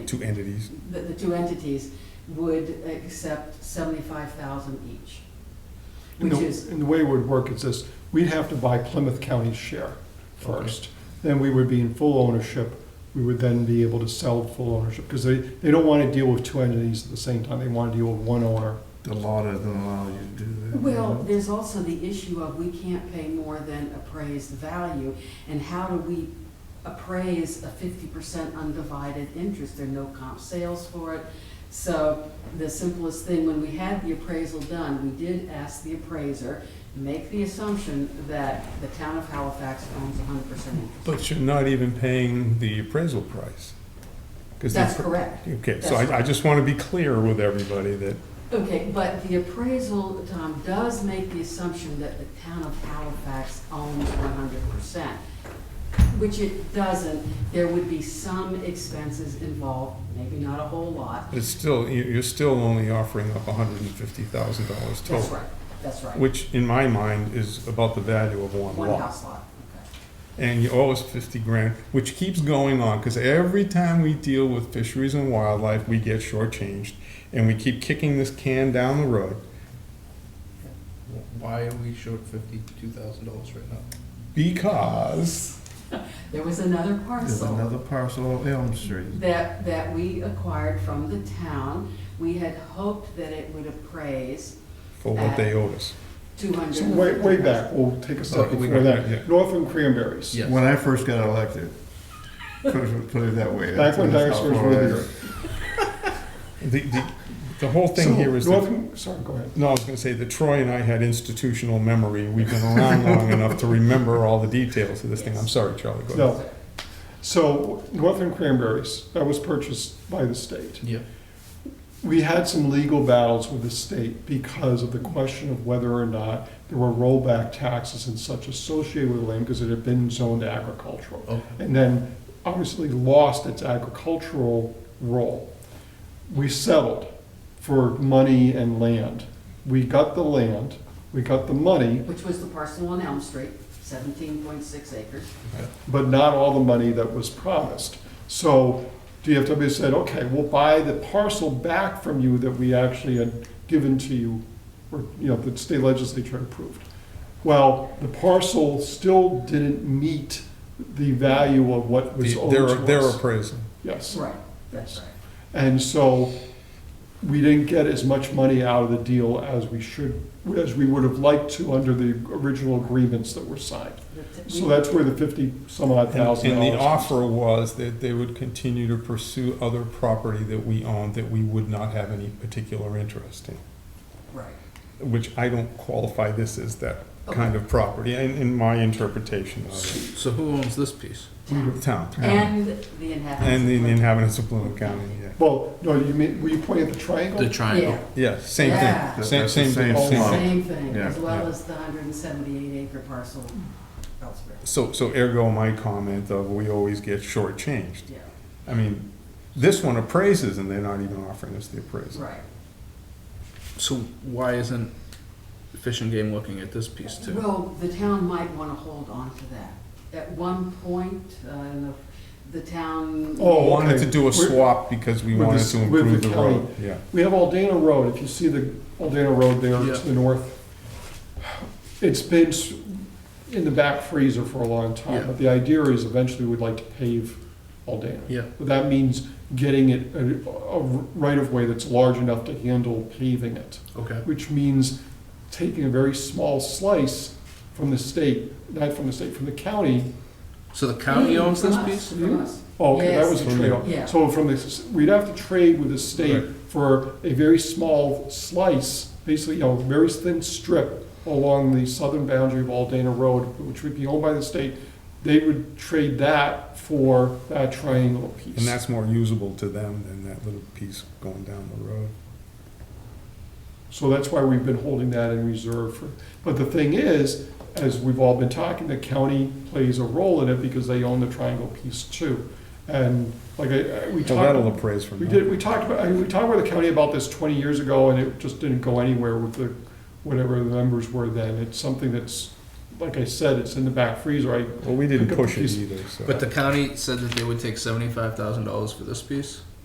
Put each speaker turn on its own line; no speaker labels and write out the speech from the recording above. two entities.
the, the two entities would accept seventy-five thousand each,
And
which
the-
is,
and the way it would work is this, we'd have to buy Plymouth County's
Okay.
share first. Then we would be in full ownership. We would then be able to sell full ownership, because they, they don't want to deal with two entities at the same time. They want to deal with one owner.
The law doesn't allow you to do that.
well, there's also the issue of we can't pay more than appraised value. And how do we appraise a fifty percent undivided interest? There are no comp sales for it. So the simplest thing, when we had the appraisal done, we did ask the appraiser, make the assumption that the town of Halifax owns hundred percent interest.
But you're not even paying the appraisal price. 'Cause the
That's
appra-
correct.
Okay, so
That's
I, I
right.
just want to be clear with everybody that,
Okay, but the appraisal, Tom, does make the assumption that the town of Halifax owns one hundred percent, which it doesn't. There would be some expenses involved, maybe not a whole lot.
but it's still, you- you're still only offering up hundred and fifty thousand dollars
That's
Oh.
total.
right, that's right.
Which in my mind is about the value of one
One
lot.
house lot,
And you owe us fifty grand, which keeps going on, because every time we deal with fisheries and wildlife, we get shortchanged. And we keep kicking this can down the road.
Why are we short fifty-two thousand dollars right now?
Because
okay. There was another
There's
parcel
another parcel on Elm Street.
that, that we acquired from the town. We had hoped that it would appraise
for what they owed us.
two hundred.
So way, way back, we'll take a second
we-
for
yeah.
that. Northland Cranberries.
Yeah. Yes.
When I first got elected, put it, put it that way.
Back when
That's how
dinosaurs
long
were
I-
here.
The, the, the whole thing
So
here is that,
Northland, sorry, go ahead.
no, I was gonna say that Troy and I had institutional memory. We've been around long enough to remember all the details of this thing. I'm sorry, Charlie, go ahead.
No. So Northland Cranberries, that was purchased by the state.
Yeah.
We had some legal battles with the state because of the question of whether or not there were rollback taxes and such associated with the land because it had been zoned agricultural.
Oh.
Okay.
And then obviously lost its agricultural role. We settled for money and land. We got the land, we got the money,
Which was the parcel on Elm Street, seventeen point six acres.
but not all the money that was promised. So DFW said, okay, we'll buy the parcel back from you that we actually had given to you, or, you know, the state legislature approved. Well, the parcel still didn't meet the value of what was
The-
owed
Their,
to
their
us.
appraisal.
Yes.
Right,
that's
right.
And so we didn't get as much money out of the deal as we should, as we would have liked to under the original agreements that were signed.
Mm-hmm.
So that's where the fifty some odd
And
thousand
and
dollars.
the offer was that they would continue to pursue other property that we owned that we would not have any particular interest in,
Right.
which I don't qualify this as that kind of property, in, in my interpretation of
So who owns this piece?
it. Town.
And the inhabitants.
And the
of Plymouth.
inhabitants of Plymouth County, yeah.
Well, no, you mean, were you pointing at the triangle?
The triangle.
Yeah, same
Yeah.
thing, same,
That's the
same,
same
thing, same
plot.
thing.
Same thing,
Yeah,
as well
yeah.
as the hundred and seventy-eight acre parcel elsewhere,
So, so ergo my comment of we always get shortchanged.
yeah,
I mean, this one appraises and they're not even offering us the appraisal.
right.
So why isn't Fish and Game looking at this piece too?
Well, the town might wanna hold on to that. At one point, uh, in the- the town.
Oh,
We wanted
okay.
to do a
We're-
swap because we
with
wanted
this-
to
with
improve
the
the road, yeah.
We have Aldana Road, if you see the Aldana Road there
Yeah.
to the north. It's been s- in the back freezer for a long time,
Yeah.
but the idea is eventually we'd like to pave Aldana.
Yeah.
But that means getting it a, a right-of-way that's large enough to handle paving it.
Okay.
which means taking a very small slice from the state, not from the state, from the county.
So the county
Mm,
owns
from
this
us,
piece?
from us.
Oh, okay, that
Yes.
was a trade-off.
Yeah.
So from the, we'd have to trade with the state
Right.
for a very small slice, basically, you know, very thin strip along the southern boundary of Aldana Road, which would be owned by the state. They would trade that for that triangle piece.
And that's more usable to them than that little piece going down the road.
So that's why we've been holding that in reserve for, but the thing is, as we've all been talking, the county plays a role in it because they own the triangle piece too. And like I, I- we
So that'll
talked,
appraise from
we
them.
did, we talked about, I mean, we talked with the county about this twenty years ago and it just didn't go anywhere with the, whatever the numbers were then. It's something that's, like I said, it's in the back freezer. I,
Well, we didn't
Pick up the
push it
piece.
either, so.
But the county said that they would take seventy-five thousand dollars for this piece?